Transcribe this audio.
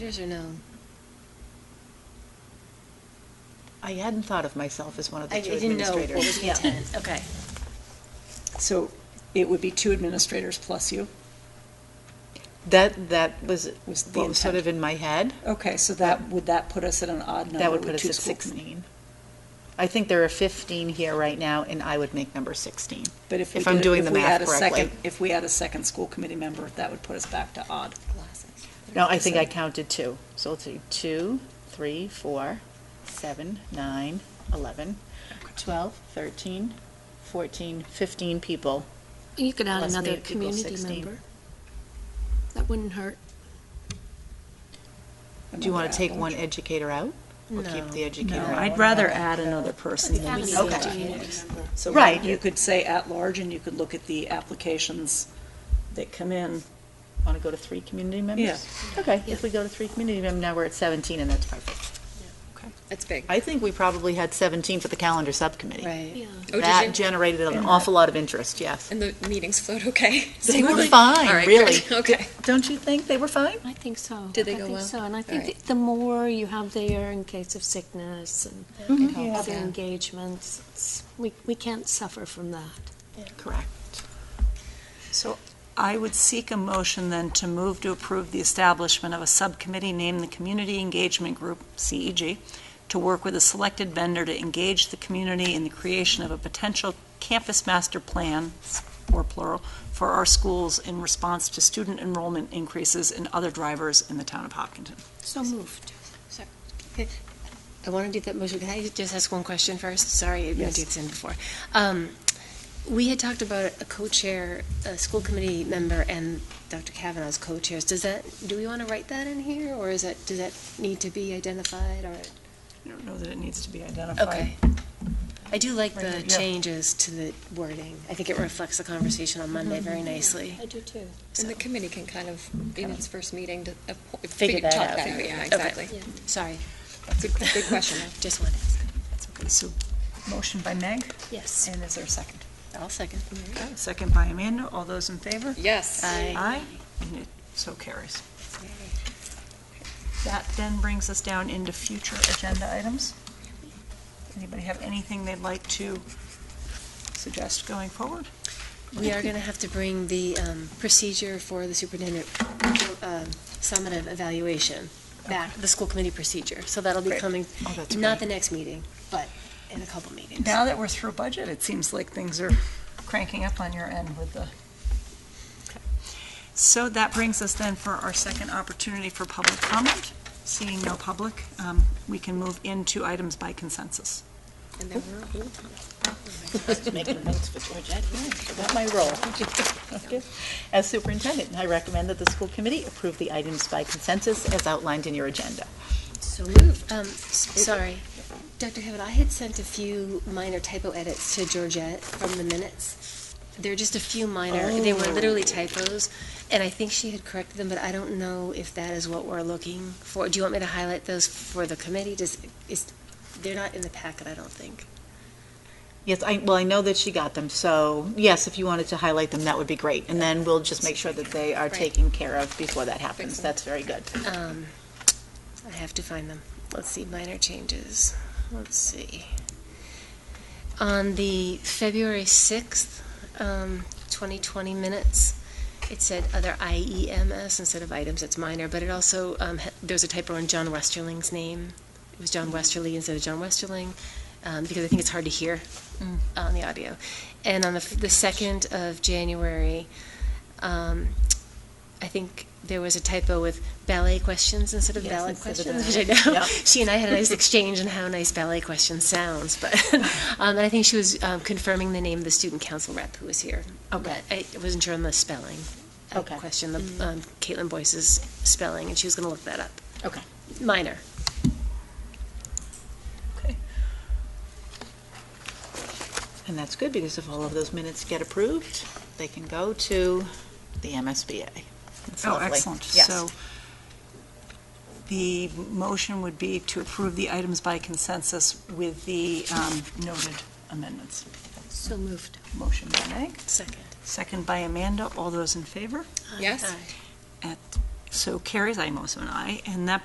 Yours are known. I hadn't thought of myself as one of I I the two didn't know what was administrators. the intent, okay. So it would be two administrators plus you? That, that was Was the what was sort intent. of in my head. Okay, so that, would that put us at an odd number? That would with put us two at school 16. I think there are 15 here right now, and I would make number 16. But if we I'm did- doing if the we math add a second- correctly. If we add a second school committee member, that would put us back to odd. No, I think I counted two. So let's see, two, three, four, seven, nine, 11, 12, 13, 14, 15 people. You could add Plus me another equals community 16. member. That wouldn't hurt. Oh Do you want Another to take add-on. one educator out? Or keep the educator No, out? I'd rather add another person than we Add need another to. community member. So Right. you could say at-large, and you could look at the applications that come in. Want to go to three community members? Yeah. Okay, Yeah. if we go to three community members, now we're at 17, and that's perfect. That's big. I think we probably had 17 for the calendar subcommittee. Right. Yeah. Oh, did you? That generated an awful lot of interest, yes. And the meetings flowed okay? They were Really? fine, All right, really. good. Okay. Don't you think they were fine? I think so. Did they I go think well? so, and I All think right. that the more you have there in case of sickness and other Yeah. engagements, it's- we, we can't suffer from that. Correct. So I would seek a motion then to move to approve the establishment of a subcommittee named the Community Engagement Group, CEG, to work with a selected vendor to engage the community in the creation of a potential campus master plan, or plural, for our schools in response to student enrollment increases and other drivers in the town of Hopkinton. So moved. I want to do that motion. Can I just ask one question first? Sorry, I didn't Yes. do this in before. Um, We had talked about a co-chair, a school committee member and Dr. Kavanaugh's co-chairs. Does that, do we want to write that in here or is that, does that need to be identified or? I don't know that it needs to be identified. Okay. I do like the Right, yeah. changes to the wording. I think it reflects the conversation on Monday very nicely. I do too. And the committee can kind of, in its first meeting, to appo- Figure that talk out, that figure Yeah, it out. Okay. exactly. Sorry, Good, good question. just one. That's okay. So, motion by Meg, Yes. and is there a second? I'll second. Okay, Second by Amanda. All those in favor? Yes. Aye. Aye, and it so carries. That then brings us down into future agenda items. Anybody have anything they'd like to suggest going forward? We are going to have to bring the um, procedure for the superintendent um, summative evaluation back, the school committee procedure. So that'll be Great. coming, Oh, that's not the great. next meeting, but in a couple meetings. Now that we're through budget, it seems like things are cranking up on your end with the. Okay. So that brings us then for our second opportunity for public comment. Seeing no public, um, we can move into items by consensus. And there were a whole ton. Making notes for Georgette, yeah, about my role. Okay. As superintendent, I recommend that the school committee approve the items by consensus as outlined in your agenda. So moved. Um, s- sorry, Dr. Hewitt, I had sent a few minor typo edits to Georgette from the minutes. They're just a few minor, they were literally typos, and I think she had corrected them, but I don't know if that is what we're looking for. Do you want me to highlight those for the committee? Does, is, they're not in the packet, I don't think. Yes, I, well, I know that she got them, so yes, if you wanted to highlight them, that would be great. And then we'll just make sure that they are Right. taken care of before that happens. That's very good. Um, I have to find them. Let's see, minor changes. Let's see. On the February 6th, um, 2020 minutes, it said other IEMS instead of items, it's minor, but it also, um, ha- there's a typo in John Westerling's name. It was John Westerly instead of John Westerling, um, because I think it's hard to hear Mm. on the audio. And on the, f- the 2nd of January, um, I think there was a typo with ballet questions instead of Yes, ballot instead of questions, ballet. which I know Yep. she and I had a nice exchange on how nice ballet question sounds. But um, and I think she was um, confirming the name of the student council rep who was here. Okay. But I wasn't sure on the spelling. I Okay. Mm. questioned the, um, Caitlin Boyce's spelling, and she was going to look that up. Okay. Minor. And that's good, because if all of those minutes get approved, they can go to the MSBA. That's Oh, lovely. excellent. Yes. So the motion would be to approve the items by consensus with the um, noted amendments. So moved. Motion by Meg, Second. second by Amanda. All those in favor? Yes. Aye. At So carries, I'm also an aye, and that